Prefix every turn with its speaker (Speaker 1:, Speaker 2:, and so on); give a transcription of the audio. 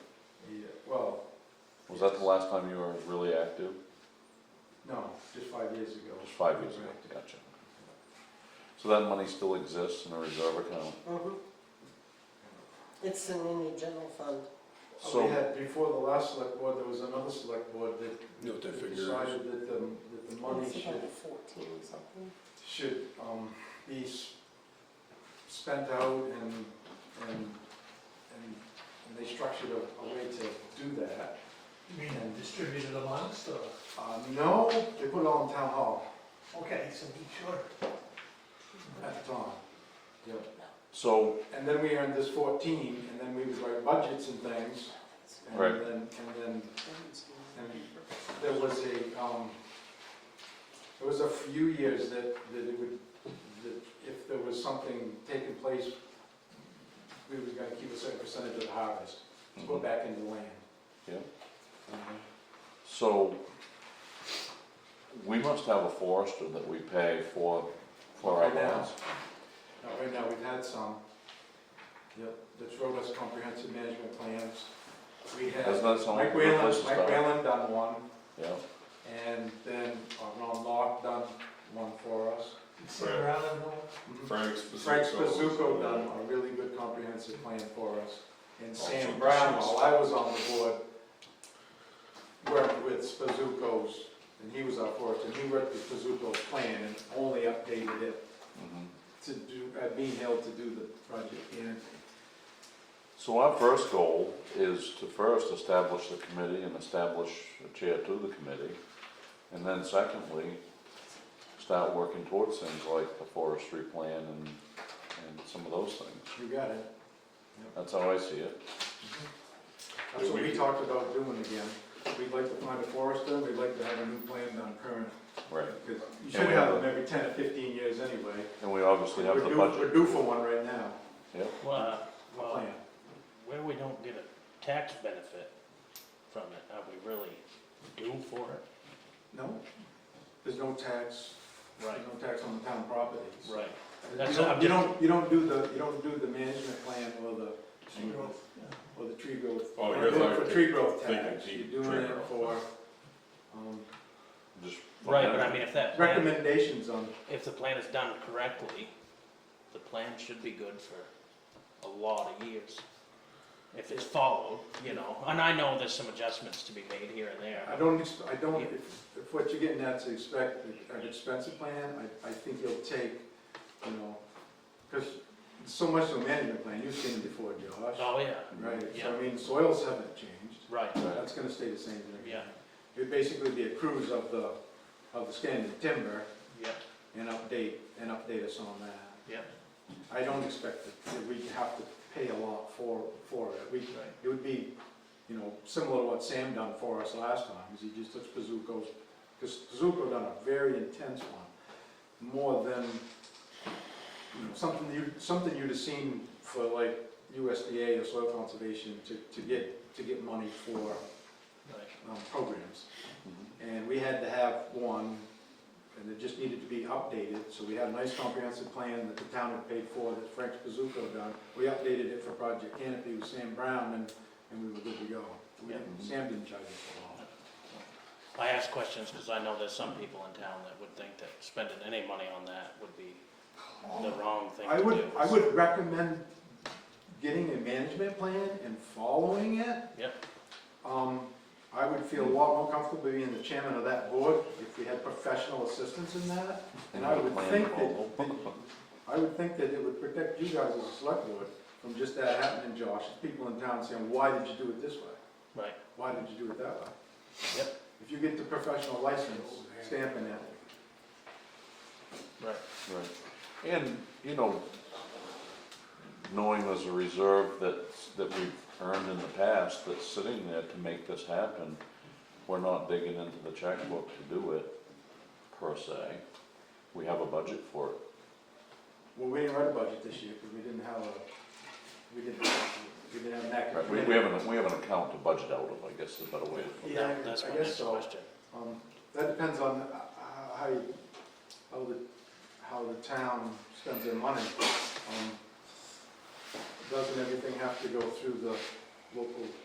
Speaker 1: Was that the last time you were really active?
Speaker 2: No, just five years ago.
Speaker 1: Just five years ago,
Speaker 2: Right. Uh,
Speaker 1: gotcha. So that money still exists in a reserve account?
Speaker 3: Mhm. It's in any general fund.
Speaker 2: We
Speaker 1: So,
Speaker 2: had, before the last select board, there was another select board that
Speaker 4: You know what that figure is?
Speaker 2: decided that the, that the money
Speaker 3: It's
Speaker 2: should,
Speaker 3: about Fourteen or something.
Speaker 2: should, um, be s- spent out and, and, and, and they structured a, a way to do that.
Speaker 5: You mean and distributed amongst, or,
Speaker 2: Uh, no, they put it all in town hall
Speaker 5: okay, so be sure.
Speaker 2: at the time. Yep.
Speaker 1: so,
Speaker 2: And then we earned this fourteen, and then we would write budgets and things, and
Speaker 1: Right.
Speaker 2: then, and then And there was a, um, there was a few years that, that it would, that if there was something taking place, we was gonna keep a certain percentage of the harvest, to go
Speaker 1: mhm.
Speaker 2: back into land. Mm-hmm.
Speaker 1: Yeah. so, we must have a forester that we pay for, for our
Speaker 2: Right now.
Speaker 1: lands.
Speaker 2: Now, right now, we've had some, yep, that's showed us comprehensive management plans. We
Speaker 1: Isn't
Speaker 2: had
Speaker 1: that something?
Speaker 2: Mike Whalen,
Speaker 1: Place to
Speaker 2: Mike
Speaker 1: start.
Speaker 2: Whalen done one,
Speaker 1: Yeah,
Speaker 2: and then uh, Ron Locke done one for us. Mm-hmm.
Speaker 5: Sit around and all.
Speaker 4: Frank's
Speaker 2: Frank
Speaker 4: Spazuko.
Speaker 2: Spazuko done a really good comprehensive plan for us. And
Speaker 4: Also,
Speaker 2: Sam Brown, while I was on the board, worked with Spazuko's, and he was our forester, and he worked with Spazuko's plan and only updated it
Speaker 1: mhm.
Speaker 2: to do, at Bean Hill to do the project. And
Speaker 1: So our first goal is to first establish the committee and establish a chair to the committee. And then secondly, start working towards things like the forestry plan and, and some of those things.
Speaker 2: you got it.
Speaker 1: That's how I see it.
Speaker 2: That's what we talked about doing again. We'd like to find a forester, we'd like to have a new plan done current.
Speaker 1: Right.
Speaker 2: Because you
Speaker 1: And
Speaker 2: should
Speaker 1: we
Speaker 2: have
Speaker 1: have
Speaker 2: them every ten or fifteen years anyway.
Speaker 1: And we obviously have
Speaker 2: We're
Speaker 1: the
Speaker 2: due-
Speaker 1: budget.
Speaker 2: We're due for one right now,
Speaker 6: Well, uh,
Speaker 2: a
Speaker 6: well,
Speaker 2: plan.
Speaker 6: where we don't get a tax benefit from it, are we really due for it?
Speaker 2: No, there's no tax, there's
Speaker 6: Right,
Speaker 2: no tax on the town properties.
Speaker 6: right.
Speaker 2: You
Speaker 6: That's-
Speaker 2: don't,
Speaker 6: I'm
Speaker 2: you
Speaker 6: just-
Speaker 2: don't, you don't do the, you don't do the management plan or the,
Speaker 5: Tree growth,
Speaker 2: or the tree growth.
Speaker 4: Oh,
Speaker 2: you
Speaker 4: you're
Speaker 2: don't do it
Speaker 4: like
Speaker 2: For tree growth
Speaker 4: thinking
Speaker 2: tax,
Speaker 4: deep
Speaker 2: you're doing
Speaker 4: tree
Speaker 2: it
Speaker 4: growth.
Speaker 2: for, um,
Speaker 1: Just-
Speaker 6: Right, but I mean, if that plan,
Speaker 2: recommendations on,
Speaker 6: if the plan is done correctly, the plan should be good for a lot of years. If it's followed, you know, and I know there's some adjustments to be made here and
Speaker 2: I
Speaker 6: there.
Speaker 2: don't, ex- I don't,
Speaker 6: Yeah.
Speaker 2: if, if what you're getting at to expect an expensive plan, I, I think you'll take, you know, because so much of a management plan, you've seen it before, Josh,
Speaker 6: Oh, yeah,
Speaker 2: right? So
Speaker 6: yeah.
Speaker 2: I mean, soils haven't changed.
Speaker 6: right,
Speaker 1: Right.
Speaker 2: That's gonna stay the same. thing.
Speaker 6: Yeah.
Speaker 2: It'd basically be a cruise of the, of the standard timber
Speaker 6: yep,
Speaker 2: and update, and update us on that.
Speaker 6: yep,
Speaker 2: I don't expect that that we have to pay a lot for, for it. We,
Speaker 6: right.
Speaker 2: it would be, you know, similar to what Sam done for us last time, is he just took Pazuko's, because Pazuko done a very intense one, more than, you know, something you, something you'd have seen for like USDA or soil conservation to, to get, to get money for
Speaker 6: right.
Speaker 2: um, programs.
Speaker 1: Mm-hmm.
Speaker 2: And we had to have one, and it just needed to be updated, so we had a nice comprehensive plan that the town had paid for, that Frank Spazuko done. We updated it for Project Canopy with Sam Brown, and, and we were good to go. We didn't- Sam didn't charge us for all.
Speaker 6: I ask questions because I know there's some people in town that would think that spending any money on that would be the wrong thing to
Speaker 2: I
Speaker 6: do.
Speaker 2: would, I would recommend getting a management plan and following it.
Speaker 6: Yep.
Speaker 2: Um, I would feel a lot more comfortable being the chairman of that board if we had professional assistance in that. And I would think that, that- I would think that it would protect you guys as a select board from just that happening, Josh. People in town saying, why did you do it this way?
Speaker 6: Right.
Speaker 2: Why did you do it that way?
Speaker 6: Yep.
Speaker 2: If you get the professional license, stamping it.
Speaker 6: Right.
Speaker 1: Right. And, you know, knowing there's a reserve that's, that we've earned in the past that's sitting there to make this happen, we're not digging into the checkbook to do it, per se. We have a budget for it.
Speaker 2: Well, we didn't write a budget this year because we didn't have a, we didn't, we didn't have an active.
Speaker 1: Right, we, we have an, we have an account to budget out of, I guess is a better way to put it.
Speaker 2: Yeah, I
Speaker 6: That's
Speaker 2: I
Speaker 6: my
Speaker 2: guess
Speaker 6: next
Speaker 2: so.
Speaker 6: question.
Speaker 2: Um, that depends on uh, uh, how, you- how the, how the town spends their money. Um, Doesn't everything have to go through the local